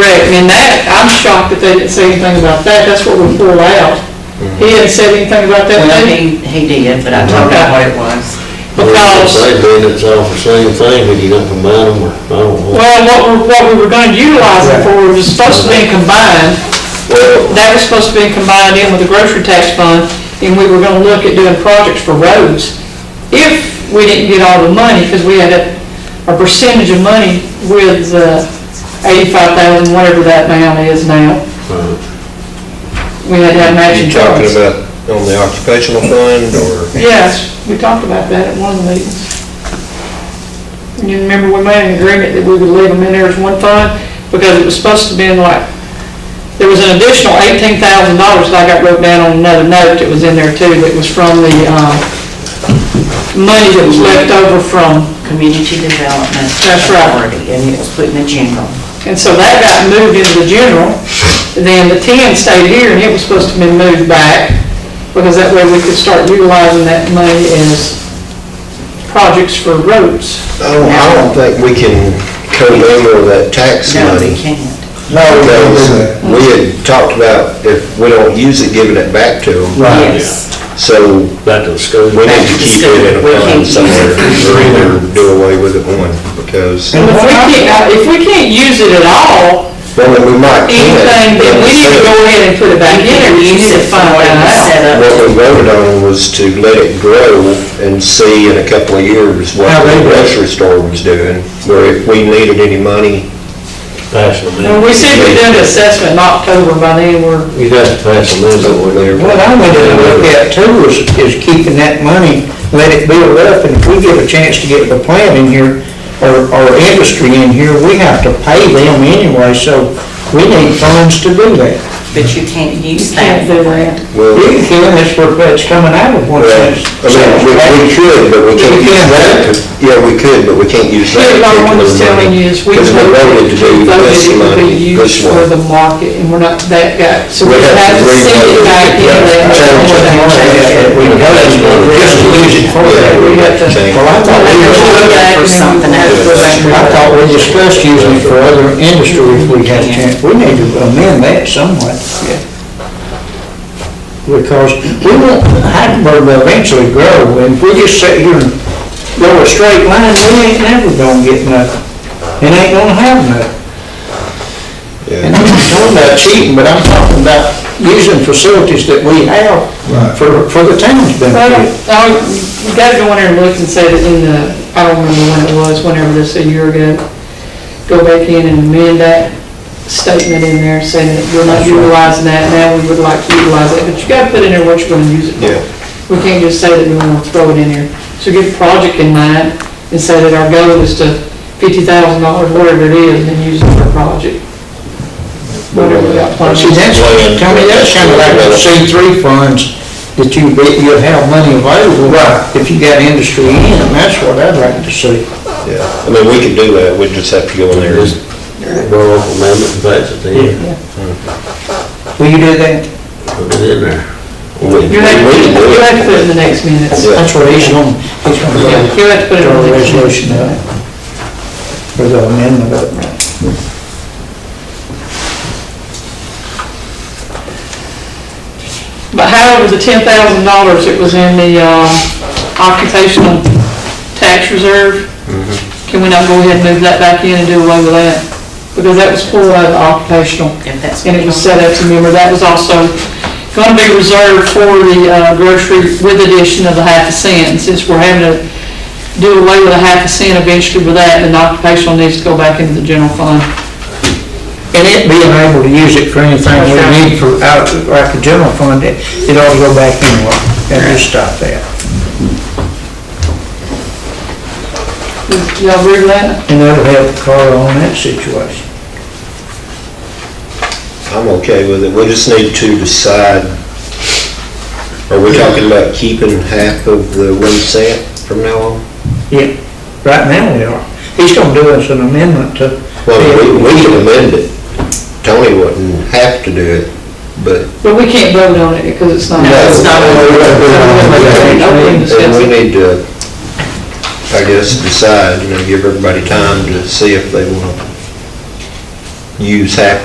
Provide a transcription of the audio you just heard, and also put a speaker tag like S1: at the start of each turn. S1: in that, I'm shocked that they didn't say anything about that, that's what we pulled out. He hadn't said anything about that
S2: Well,
S1: thing,
S2: he, he did, but I told him what it was.
S1: because,
S3: Basically, it's all the same thing, when you don't combine them, or, I don't know.
S1: well, what we, what we were gonna utilize it for was supposed to be combined,
S3: Well,
S1: that was supposed to be combined in with the grocery tax fund, and we were gonna look at doing projects for roads. If we didn't get all the money, because we had a, a percentage of money with, uh, eighty-five thousand, whatever that amount is now,
S3: uh,
S1: we had to have matching
S4: You talking
S1: funds.
S4: about on the occupational fund or?
S1: Yes, we talked about that at one of the meetings. And you remember we made an agreement that we would leave them in there as one fund, because it was supposed to be in like, there was an additional eighteen thousand dollars that I got wrote down on another note that was in there too, that was from the, um, money that was left over from,
S2: Community Development
S1: That's right.
S2: Authority, and it was put in the general.
S1: and so that got moved into the general. Then the ten stayed here, and it was supposed to be moved back, because that way we could start utilizing that money as projects for roads.
S4: I don't, I don't think we can commingle that tax
S2: No, we
S4: money.
S2: can't.
S5: No, we don't do
S4: Because
S5: that.
S4: we had talked about if we don't use it, giving it back to them.
S5: Right.
S2: Yes,
S4: So
S3: back to the school.
S4: we need to keep it in a
S2: We can't
S4: fund
S2: use it.
S4: somewhere or either do away with it one because,
S5: And
S1: If we can't, uh, if we can't use it at all,
S4: well, then we might
S1: anything,
S4: can.
S1: then we need to go ahead and put it back
S2: we
S1: in there,
S2: can
S1: we
S2: use
S1: need to
S2: it for
S1: find
S2: what it was
S1: that out.
S2: set up.
S4: What we voted on was to let it grow and see in a couple of years what
S5: How they
S4: the
S5: grow.
S4: grocery store was doing, where if we needed any money.
S3: Pass them
S1: When
S3: in.
S1: we said we done an assessment in October, by then we're,
S3: You'd have to pass them in, but we never.
S5: What I'm gonna look at too is, is keeping that money, let it build up, and if we get a chance to get the plant in here, or, or industry in here, we have to pay them anyway, so we need funds to do that.
S2: But you can't use
S1: can't
S2: that.
S1: do that.
S4: Well,
S5: You can, that's where it's coming out of, once
S4: Well,
S5: it's.
S4: I mean, we, we could, but we can't use that. Yeah, we could, but we can't use
S1: Here,
S4: that.
S1: what I'm just telling you is we
S4: Because we voted to do
S1: voted
S4: this
S1: it would be
S4: money,
S1: used
S4: this
S1: for
S4: one.
S1: the market, and we're not that guy, so we
S4: We have
S1: have
S4: to
S1: to send it
S4: revote
S1: back
S4: it,
S1: in
S4: yeah.
S1: there.
S4: Change it.
S5: We
S4: Yeah, that's what we're-
S5: just use it for that, we have to.
S4: Change.
S5: Well, I thought we
S2: We're
S5: just-
S2: looking for something
S5: I
S2: else.
S5: thought we discussed using it for other industry if we had a chance. We need to amend that somewhat. Because we want Hackleburg to eventually grow, and if we just sit here and go a straight line, we ain't never gonna get nothing. And ain't gonna have nothing.
S4: Yeah.
S5: And I'm not talking about cheating, but I'm talking about using facilities that we have for, for the town's
S1: Well,
S5: benefit.
S1: I, you gotta go in there and look and say that in the, I don't remember when it was, whenever this, a year ago, go back in and amend that statement in there saying that we're not utilizing that, now we would like to utilize it, but you gotta put in there what you're gonna use it for.
S4: Yeah.
S1: We can't just say that we wanna throw it in there. So get a project in mind and say that our goal is to fifty thousand dollars, whatever it is, and use it for a project. Whatever we got planned.
S5: See, that's, Tony, that sounded like those C three funds that you, be- you'd have money available if you got industry in, and that's what I'd like to see.
S4: Yeah, I mean, we could do that, we just have to go in there and
S3: Just borrow off amendment and pass it in,
S5: Will you do that?
S3: put it in there.
S4: we-
S1: You'll have,
S4: we can do
S1: to-
S4: it.
S1: you'll have to put it in the next minutes.
S4: Yeah.
S5: That's what he's gonna, he's gonna
S1: Yeah,
S5: go
S1: You'll have to put it in
S5: draw
S1: the
S5: a
S1: next minutes.
S5: resolution of it. Or the amendment of it.
S1: But however, the ten thousand dollars that was in the uh, occupational tax reserve,
S2: Mm-hmm.
S1: can we not go ahead and move that back in and do away with that? Because that was pulled out of the occupational,
S2: If that's.
S1: and it was set up to remember, that was also gonna be reserved for the uh, grocery with addition of the half a cent. And Since we're having to do away with a half a cent eventually with that, then the occupational needs to go back into the general fund.
S5: And it being able to use it for anything we need for, out, like the general fund, it, it ought to go back anyway, and just stop that.
S1: Y'all agree with that?
S5: And that'll help Carl on that situation.
S4: I'm okay with it, we just need to decide, are we talking about keeping half of the one cent from now on?
S5: Yeah, right now we are. He's gonna do us an amendment to.
S4: Well, we, we can amend it, Tony wouldn't have to do it, but
S1: But we can't vote on it because it's not.
S2: No, it's not.
S1: Open
S4: And
S1: discussion.
S4: we need to, I guess, decide, you know, give everybody time to see if they want to use half